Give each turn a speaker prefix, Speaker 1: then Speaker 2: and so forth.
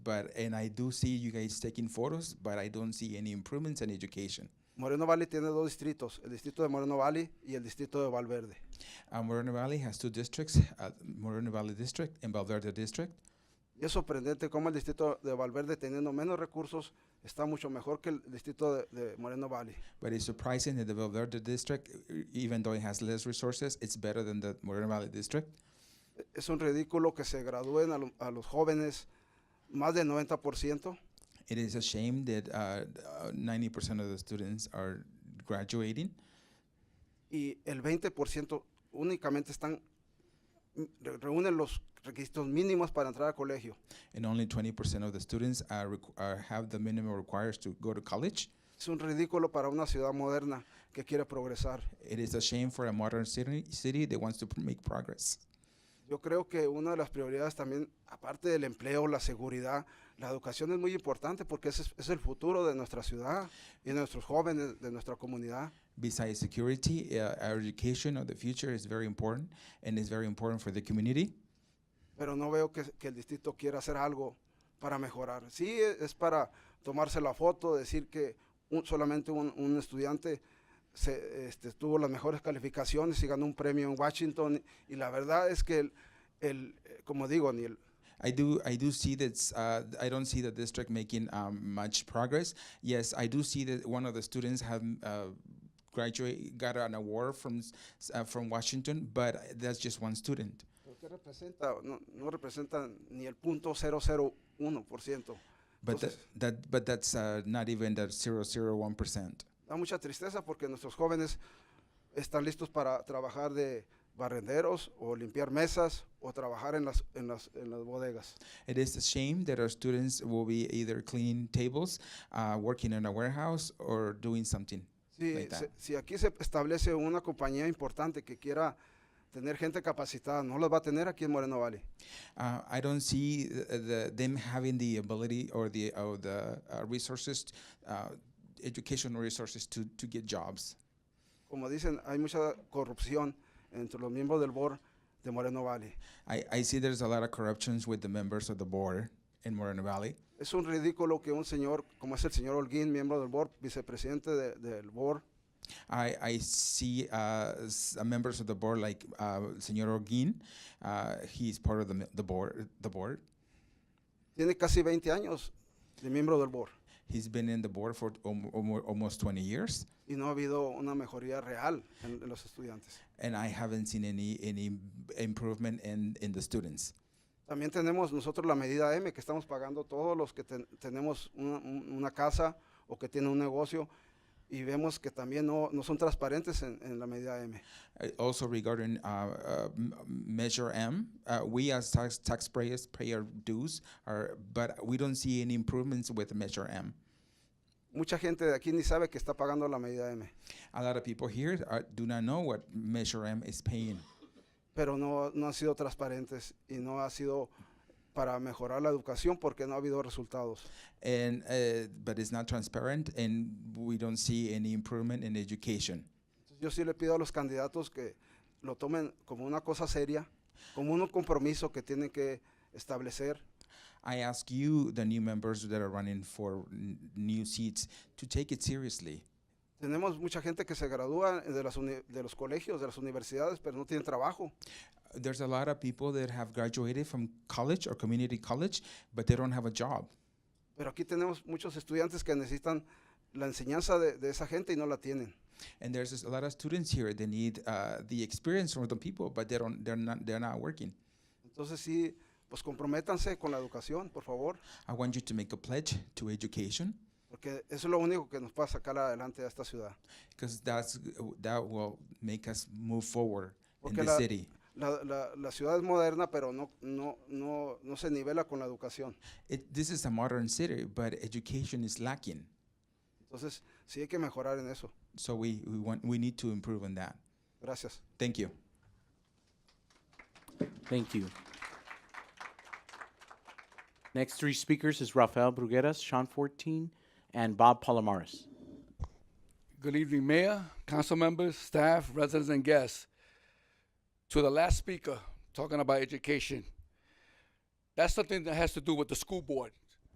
Speaker 1: But and I do see you guys taking photos, but I don't see any improvements in education.
Speaker 2: Moreno Valley tiene dos distritos, el distrito de Moreno Valley y el distrito de Valverde.
Speaker 1: Uh, Moreno Valley has two districts: uh, Moreno Valley District and Valverde District.
Speaker 2: Y es sorprendente cómo el distrito de Valverde, teniendo menos recursos, está mucho mejor que el distrito de, de Moreno Valley.
Speaker 1: But it's surprising that the Valverde District, e- even though it has less resources, it's better than the Moreno Valley District.
Speaker 2: E- Es un ridículo que se gradúen a, lo- a los jóvenes más del 90%.
Speaker 1: It is a shame that uh, uh, 90% of the students are graduating,
Speaker 2: y el 20% únicamente están re- reúnen los requisitos mínimos para entrar al colegio.
Speaker 1: and only 20% of the students are, requ- are have the minimum requires to go to college.
Speaker 2: Es un ridículo para una ciudad moderna que quiere progresar.
Speaker 1: It is a shame for a modern city, city that wants to pr- make progress.
Speaker 2: Yo creo que una de las prioridades también, aparte del empleo, la seguridad, la educación es muy importante porque ese es, es el futuro de nuestra ciudad y de nuestros jóvenes, de nuestra comunidad.
Speaker 1: Besides security, uh, our education of the future is very important, and it's very important for the community.
Speaker 2: Pero no veo que, que el distrito quiera hacer algo para mejorar. Sí, e- es para tomarse la foto, decir que un- solamente un, un estudiante se, este, tuvo las mejores calificaciones y ganó un premio en Washington. Y la verdad es que, el, el, eh, como digo, ni el-
Speaker 1: I do, I do see that. Uh, I don't see the district making um, much progress. Yes, I do see that one of the students have uh, graduate got an award from s- s- uh, from Washington, but that's just one student.
Speaker 2: porque representa, no, no representa ni el punto 001%.
Speaker 1: But that,
Speaker 2: Entonces-
Speaker 1: that, but that's uh, not even the 001 percent.
Speaker 2: Da mucha tristeza porque nuestros jóvenes están listos para trabajar de barrenderos o limpiar mesas o trabajar en las, en las, en las bodegas.
Speaker 1: It is a shame that our students will be either cleaning tables, uh, working in a warehouse, or doing something.
Speaker 2: Sí,
Speaker 1: like that.
Speaker 2: se- si aquí se establece una compañía importante que quiera tener gente capacitada, no las va a tener aquí en Moreno Valley.
Speaker 1: Uh, I don't see th- the, them having the ability or the or the uh, resources, uh, educational resources to, to get jobs.
Speaker 2: Como dicen, hay mucha corrupción entre los miembros del board de Moreno Valley.
Speaker 1: I, I see there's a lot of corruptions with the members of the board in Moreno Valley.
Speaker 2: Es un ridículo que un señor, como es el señor Holguín, miembro del board, vicepresidente de- del board,
Speaker 1: I, I see uh, s- uh, members of the board like uh, Senor Orguin. Uh, he's part of the, mi- the board. The board.
Speaker 2: tiene casi 20 años de miembro del board
Speaker 1: He's been in the board for om- om- almost 20 years,
Speaker 2: y no ha habido una mejoría real en, en los estudiantes.
Speaker 1: and I haven't seen any any improvement in, in the students.
Speaker 2: También tenemos nosotros la medida M que estamos pagando todos los que ten- tenemos una, un- una casa o que tienen un negocio y vemos que también no, no son transparentes en, en la medida M.
Speaker 1: Uh, also regarding uh, uh, m- Measure M, uh, we as tax taxpayers pay our dues, our, but we don't see any improvements with Measure M.
Speaker 2: Mucha gente de aquí ni sabe que está pagando la medida M,
Speaker 1: A lot of people here uh, do not know what Measure M is paying,
Speaker 2: pero no, no han sido transparentes y no ha sido para mejorar la educación porque no ha habido resultados.
Speaker 1: and uh, but it's not transparent, and we don't see any improvement in education.
Speaker 2: Yo sí le pido a los candidatos que lo tomen como una cosa seria, como un compromiso que tienen que establecer
Speaker 1: I ask you, the new members that are running for n- new seats, to take it seriously.
Speaker 2: Tenemos mucha gente que se gradúa de, las uni- de los colegios, de las universidades, pero no tienen trabajo.
Speaker 1: There's a lot of people that have graduated from college or community college, but they don't have a job.
Speaker 2: Pero aquí tenemos muchos estudiantes que necesitan la enseñanza de, de esa gente y no la tienen.
Speaker 1: and there's just a lot of students here that need uh, the experience from the people but they don't they're not they're not working
Speaker 2: Entonces sí, pues comprométanse con la educación, por favor,
Speaker 1: i want you to make a pledge to education
Speaker 2: porque eso es lo único que nos puede sacar adelante a esta ciudad.
Speaker 1: because that's that will make us move forward
Speaker 2: Porque
Speaker 1: in the
Speaker 2: la-
Speaker 1: city
Speaker 2: La, la- la ciudad es moderna, pero no, no, no, no se nivela con la educación.
Speaker 1: it, this is a modern city but education is lacking
Speaker 2: Entonces sí hay que mejorar en eso.
Speaker 1: so we we want we need to improve on that
Speaker 2: Gracias.
Speaker 1: thank you
Speaker 3: Thank you. Next three speakers is Rafael Brugueras, Sean 14, and Bob Palomares.
Speaker 4: Good evening, Mayor, council members, staff, residents, and guests. To the last speaker, talking about education, that's something that has to do with the school board.